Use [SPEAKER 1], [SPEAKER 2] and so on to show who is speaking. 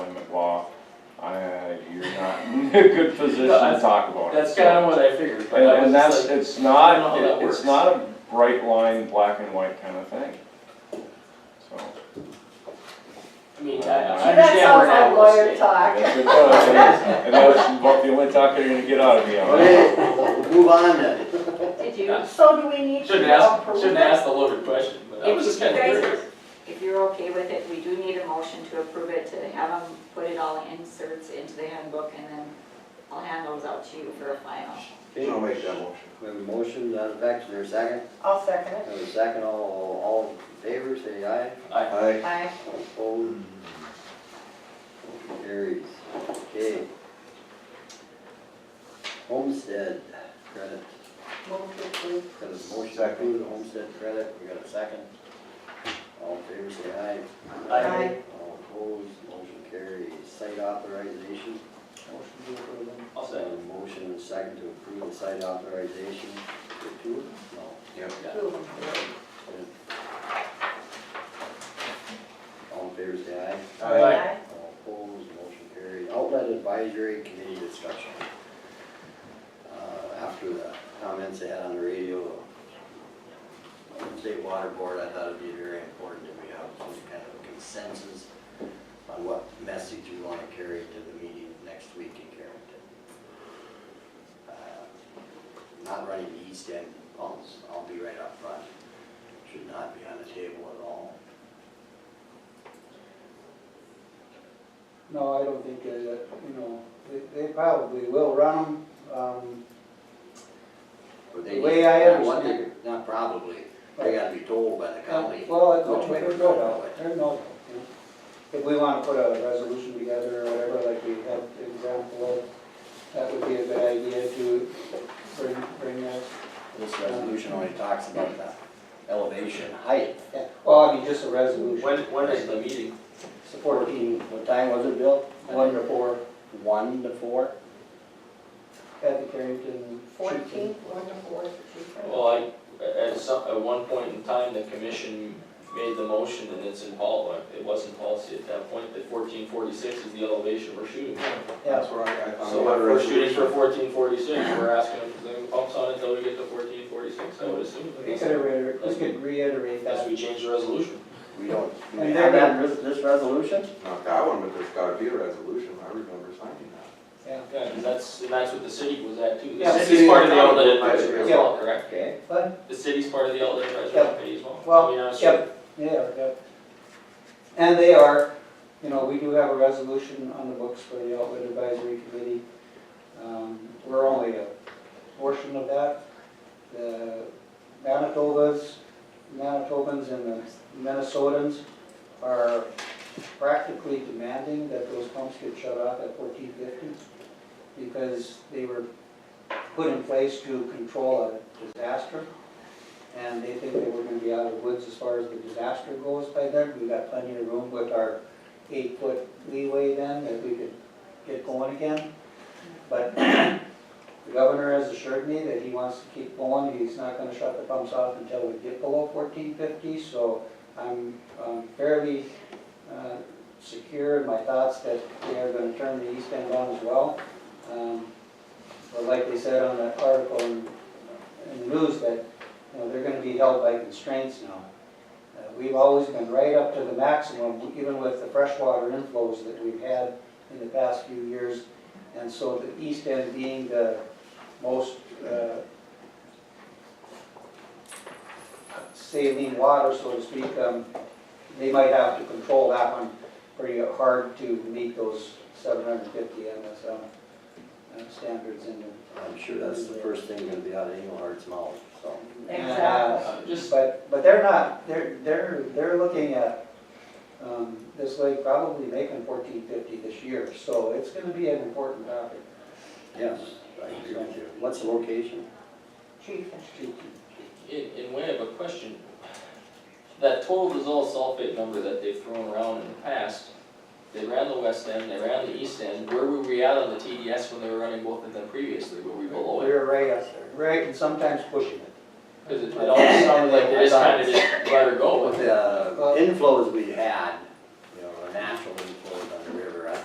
[SPEAKER 1] a good position
[SPEAKER 2] No, I-
[SPEAKER 1] to talk about it.
[SPEAKER 2] That's kind of what I figured, but
[SPEAKER 1] And,
[SPEAKER 2] I was
[SPEAKER 1] and that's,
[SPEAKER 2] just like,
[SPEAKER 1] it's
[SPEAKER 2] I don't
[SPEAKER 1] not,
[SPEAKER 2] know how that
[SPEAKER 1] it's
[SPEAKER 2] works.
[SPEAKER 1] not a bright line, black and white kind of thing. So.
[SPEAKER 2] I mean, I, I
[SPEAKER 1] So
[SPEAKER 2] understand we're not.
[SPEAKER 3] lawyer
[SPEAKER 1] And
[SPEAKER 3] talk.
[SPEAKER 1] that's what it is. And that's about the only talk you're gonna get out of me on it.
[SPEAKER 4] Okay, we'll move on then.
[SPEAKER 3] Did you, so do we need to
[SPEAKER 2] Shouldn't
[SPEAKER 3] approve?
[SPEAKER 2] ask, shouldn't ask the loaded question, but I was just kind of
[SPEAKER 3] If you guys-
[SPEAKER 2] curious.
[SPEAKER 3] If you're okay with it, we do need a motion to approve it, to have them put it all inserts into the handbook, and then I'll hand those out to you for a final.
[SPEAKER 4] Okay,
[SPEAKER 5] I'll make that motion.
[SPEAKER 4] We have a motion, that effect, is there a second?
[SPEAKER 6] I'll second it.
[SPEAKER 4] Have a second, all, all in favor, say aye.
[SPEAKER 2] I,
[SPEAKER 5] Aye.
[SPEAKER 3] Aye.
[SPEAKER 4] All Opposed? Motion Carries. Okay. Homestead credit,
[SPEAKER 6] Move to approve.
[SPEAKER 4] got a motion to
[SPEAKER 5] Second.
[SPEAKER 4] approve the homestead credit, we got a second. All in favor, say aye.
[SPEAKER 6] Aye. Aye.
[SPEAKER 4] All opposed, motion carries. Site authorization. Motion to approve
[SPEAKER 2] I'll say,
[SPEAKER 4] Uh, Motion and second to approve the site authorization for two of them? No.
[SPEAKER 5] Yep.
[SPEAKER 2] yeah.
[SPEAKER 4] All in favor, say aye.
[SPEAKER 5] Aye.
[SPEAKER 6] Aye.
[SPEAKER 4] All opposed, motion carried. Outlet advisory committee discussion. Uh, After the comments they had on the radio, uh, State Water Board, I thought it'd be very important that we have some kind of consensus on what message we want to carry to the meeting next week in Carrington. Uh, Not running the east end pumps, I'll be right up front, should not be on the table at all.
[SPEAKER 7] No, I don't think that, that, you know, they- they probably will run um, them.
[SPEAKER 4] But
[SPEAKER 7] The way I
[SPEAKER 4] not what they-
[SPEAKER 7] understand
[SPEAKER 4] Not probably, they gotta be told by the county.
[SPEAKER 7] Well, it-
[SPEAKER 4] No,
[SPEAKER 7] which way
[SPEAKER 4] they're
[SPEAKER 7] they
[SPEAKER 4] not
[SPEAKER 7] go, though,
[SPEAKER 4] that way.
[SPEAKER 7] they're no. you know. If we want to put a resolution together or whatever, like we had the example of, that would be a good idea to bring, bring that.
[SPEAKER 4] This resolution only talks about the elevation height.
[SPEAKER 7] yeah. Well, I mean, just a resolution,
[SPEAKER 2] When, when is the meeting?
[SPEAKER 4] It's fourteen, what time was it, Bill? One to four. One to four?
[SPEAKER 7] at the Carrington.
[SPEAKER 6] Fourteen, one to four, three, four.
[SPEAKER 2] Well, I, at some, at one point in time, the commission made the motion and it's in pol, uh, it was in policy at that point, that fourteen forty-six is the elevation we're shooting for.
[SPEAKER 7] Yeah,
[SPEAKER 5] where I, I
[SPEAKER 2] So if we're shooting for fourteen forty-six, we're asking them to leave the pumps on until we get to fourteen forty-six, I would assume.
[SPEAKER 7] we could reiterate, we could reiterate
[SPEAKER 2] Unless
[SPEAKER 7] that.
[SPEAKER 2] we change the resolution.
[SPEAKER 4] We don't, do we
[SPEAKER 7] And
[SPEAKER 4] have
[SPEAKER 7] then-
[SPEAKER 4] that, res- this resolution?
[SPEAKER 5] Not that one, but there's gotta be a resolution, I remember signing that.
[SPEAKER 2] Yeah, and that's, and that's what the city was at too.
[SPEAKER 7] Yeah,
[SPEAKER 2] The
[SPEAKER 7] the
[SPEAKER 2] city's
[SPEAKER 5] city-
[SPEAKER 2] part of the outlet advisory as
[SPEAKER 7] Yeah.
[SPEAKER 2] well, correct?
[SPEAKER 4] Okay.
[SPEAKER 7] But,
[SPEAKER 2] The city's part of the outlet advisory
[SPEAKER 7] Yeah.
[SPEAKER 2] committee as well. I
[SPEAKER 7] Well,
[SPEAKER 2] mean, I was sure-
[SPEAKER 7] yep, they are, yep. And they are, you know, we do have a resolution on the books for the outlet advisory committee. Um, We're only a portion of that. The Manitobas, Manitobans and the Minnesotans are practically demanding that those pumps get shut off at fourteen fifty because they were put in place to control a disaster. And they think that we're gonna be out of the woods as far as the disaster goes by then. We've got plenty of room with our eight-foot leeway then that we could get going again. But the governor has assured me that he wants to keep going. He's not gonna shut the pumps off until we get below fourteen fifty. So I'm um, fairly uh, secure in my thoughts that they are gonna turn the east end on as well. Um, But like they said on that article in in the news, that you know, they're gonna be held by constraints now. Uh, We've always been right up to the maximum, even with the freshwater inflows that we've had in the past few years. And so the east end being the most uh, saline water, so to speak, um, they might have to control that one pretty hard to meet those seven hundred and fifty MSM uh, standards in the.
[SPEAKER 4] I'm sure that's the first thing gonna be out of Engelhardt's mouth, so.
[SPEAKER 6] Exactly.
[SPEAKER 2] Uh, Just,
[SPEAKER 7] But, but they're not, they're, they're, they're looking at, um, this lake probably making fourteen fifty this year, so it's gonna be an important topic.
[SPEAKER 4] Yes, I agree with you. What's the location?
[SPEAKER 6] Chief.
[SPEAKER 2] in, in way of a question, that total dissolved sulfate number that they've thrown around in the past, they ran the west end, they ran the east end, where were we at on the TDS when they were running both of them previously? Were we below it?
[SPEAKER 7] We're right up there, right, and sometimes pushing it.
[SPEAKER 2] Because it it always sounded like they just kind of just let her go with it.
[SPEAKER 4] The inflows we had